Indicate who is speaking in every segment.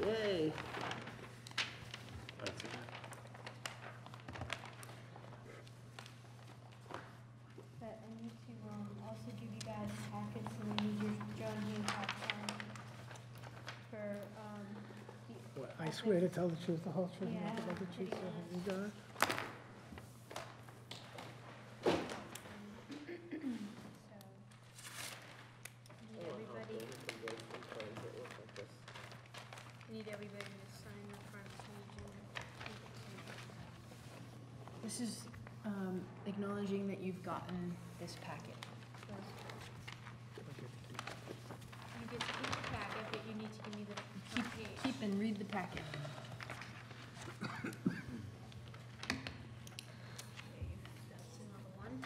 Speaker 1: Yay.
Speaker 2: That's it.
Speaker 3: But I need to, um, also give you guys packets and I need your John Hancock sign for, um, the.
Speaker 4: I swear to tell the truth, the whole truth, and nothing
Speaker 3: Yeah,
Speaker 4: but the truth, so help me God.
Speaker 3: So. Need everybody, need everybody to sign the front page and.
Speaker 5: This is um, acknowledging that you've gotten this packet.
Speaker 3: You get to keep the packet, but you need to give me the
Speaker 5: Keep,
Speaker 3: front page.
Speaker 5: keep and read the packet.
Speaker 3: Okay, That's another one.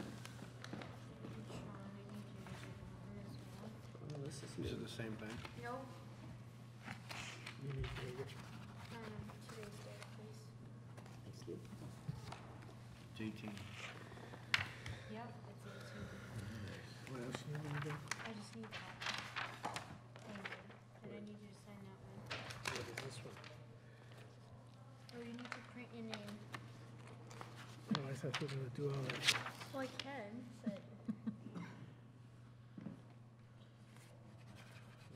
Speaker 3: And Sean, I need you to do another as well.
Speaker 1: Well, this is
Speaker 2: These are
Speaker 1: new.
Speaker 2: the same thing?
Speaker 3: No,
Speaker 4: You need to get your-
Speaker 3: sign up for today's date, please.
Speaker 1: Thank you.
Speaker 2: It's eighteen.
Speaker 3: Yep, it's eighteen.
Speaker 4: What else you need to do?
Speaker 3: I just need that. Thank you. And I need you to sign that one.
Speaker 1: What is this one?
Speaker 3: Oh, you need to print your name.
Speaker 4: Oh, I thought you were gonna do all that.
Speaker 3: Well, I can, but.
Speaker 1: One, two,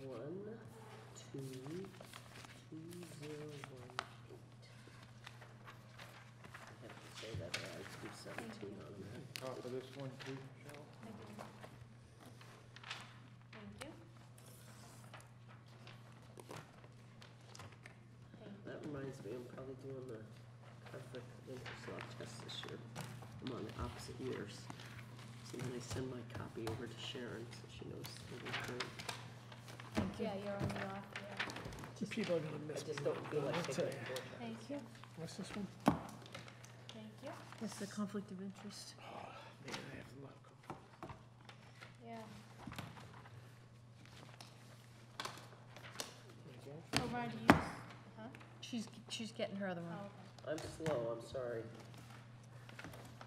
Speaker 1: two, zero, one, eight. I have to say that, or I do seventeen on that.
Speaker 6: Top of this one too, Michelle?
Speaker 3: I do. Thank you. Thank you.
Speaker 1: That reminds me, I'm probably doing the conflict of interest law test this year. I'm on the opposite years. So then I send my copy over to Sharon, so she knows it'll be great.
Speaker 5: Thank you.
Speaker 3: Yeah, you're on the off, yeah.
Speaker 4: People are gonna miss me.
Speaker 1: I just don't feel like
Speaker 4: I'll
Speaker 1: taking
Speaker 4: tell
Speaker 1: it.
Speaker 4: you.
Speaker 3: Thank you.
Speaker 4: What's this one?
Speaker 3: Thank you.
Speaker 5: This is a conflict of interest.
Speaker 4: Man, I have a lot of. co-
Speaker 3: Yeah.
Speaker 4: Okay.
Speaker 3: Oh, Ron, do you, s- huh?
Speaker 5: She's, she's getting her other
Speaker 3: Oh,
Speaker 5: one.
Speaker 3: okay.
Speaker 1: I'm slow, I'm sorry.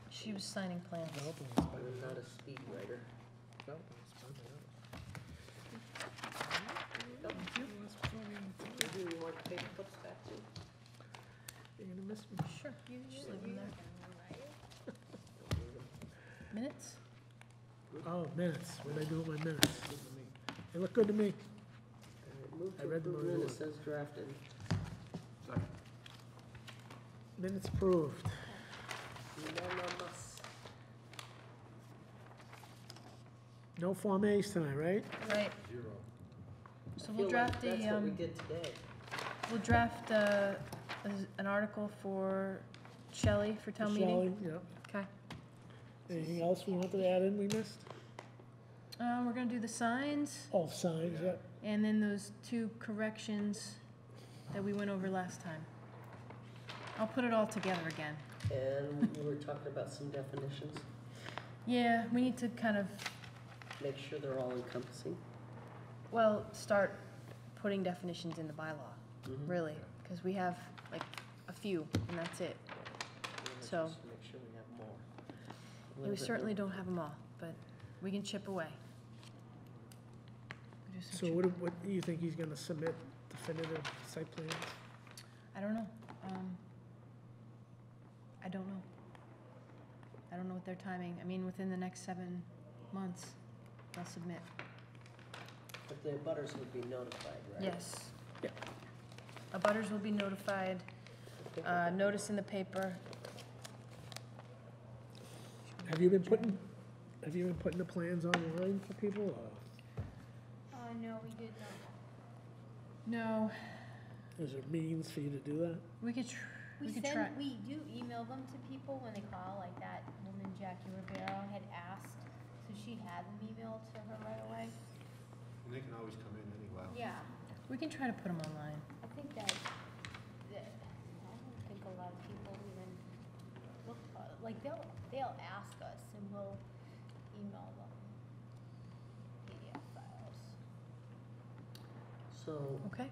Speaker 5: She was signing plans.
Speaker 4: Developing is better
Speaker 1: I'm
Speaker 4: than
Speaker 1: not a speed writer.
Speaker 4: developing is better than that.
Speaker 1: Oh,
Speaker 4: Yeah, that's what I mean, too.
Speaker 1: Do you want to take clips back too?
Speaker 4: You're gonna miss me.
Speaker 5: Sure.
Speaker 3: You
Speaker 5: Just
Speaker 3: you-
Speaker 5: leave them
Speaker 3: you-
Speaker 5: there. Minutes?
Speaker 4: Oh, minutes, what did I do with my minutes? They look good to me.
Speaker 1: Alright, Move
Speaker 4: I
Speaker 1: to
Speaker 4: read them
Speaker 1: approve minutes
Speaker 4: earlier.
Speaker 1: as drafted.
Speaker 2: Second.
Speaker 4: Minutes approved.
Speaker 1: Unanimous.
Speaker 4: No Form As tonight, right?
Speaker 5: Right.
Speaker 6: Zero.
Speaker 5: So
Speaker 1: I
Speaker 5: we'll
Speaker 1: feel like
Speaker 5: draft a,
Speaker 1: That's what we
Speaker 5: um,
Speaker 1: did today.
Speaker 5: we'll draft uh, a, an article for Shelley for town meeting.
Speaker 4: Shelley, Yep.
Speaker 5: Okay.
Speaker 4: Anything else we wanted to add in we missed?
Speaker 5: Uh, we're gonna do the signs
Speaker 4: All signs,
Speaker 6: Yeah.
Speaker 4: yep.
Speaker 5: and then those two corrections that we went over last time. I'll put it all together again.
Speaker 1: And we were talking about some definitions.
Speaker 5: Yeah, we need to kind of,
Speaker 1: Make sure they're all encompassing.
Speaker 5: well, start putting definitions in the bylaw,
Speaker 1: Mhm.
Speaker 5: really, because we have like a few and that's it.
Speaker 1: Let's
Speaker 5: So-
Speaker 1: just Make sure we have more. A
Speaker 5: And
Speaker 1: little
Speaker 5: we
Speaker 1: bit
Speaker 5: certainly
Speaker 1: more.
Speaker 5: don't have them all, but we can chip away. We do some
Speaker 4: So
Speaker 5: chip-
Speaker 4: what, do- what, do you think he's gonna submit definitive site plans?
Speaker 5: I don't know. Um, I don't know. I don't know what their timing, I mean, within the next seven months, they'll submit.
Speaker 1: But the butters would be notified, right?
Speaker 5: Yes.
Speaker 4: Yeah.
Speaker 5: Abutters will be notified, uh, notice in the paper.
Speaker 4: Have you been putting, have you been putting the plans online for people, or
Speaker 3: Uh, no, we did not.
Speaker 5: No,
Speaker 4: is there means for you to do that?
Speaker 5: we could, tr- we
Speaker 3: We
Speaker 5: could try.
Speaker 3: send, we do email them to people when they call, like that woman Jackie Rivera had asked, so she had them emailed to her right away.
Speaker 6: And they can always come in anyway.
Speaker 3: Yeah.
Speaker 5: We can try to put them online.
Speaker 3: I think that, that, I don't think a lot of people even look, uh, like, they'll, they'll ask us and we'll email them PDF files.
Speaker 1: So
Speaker 5: Okay.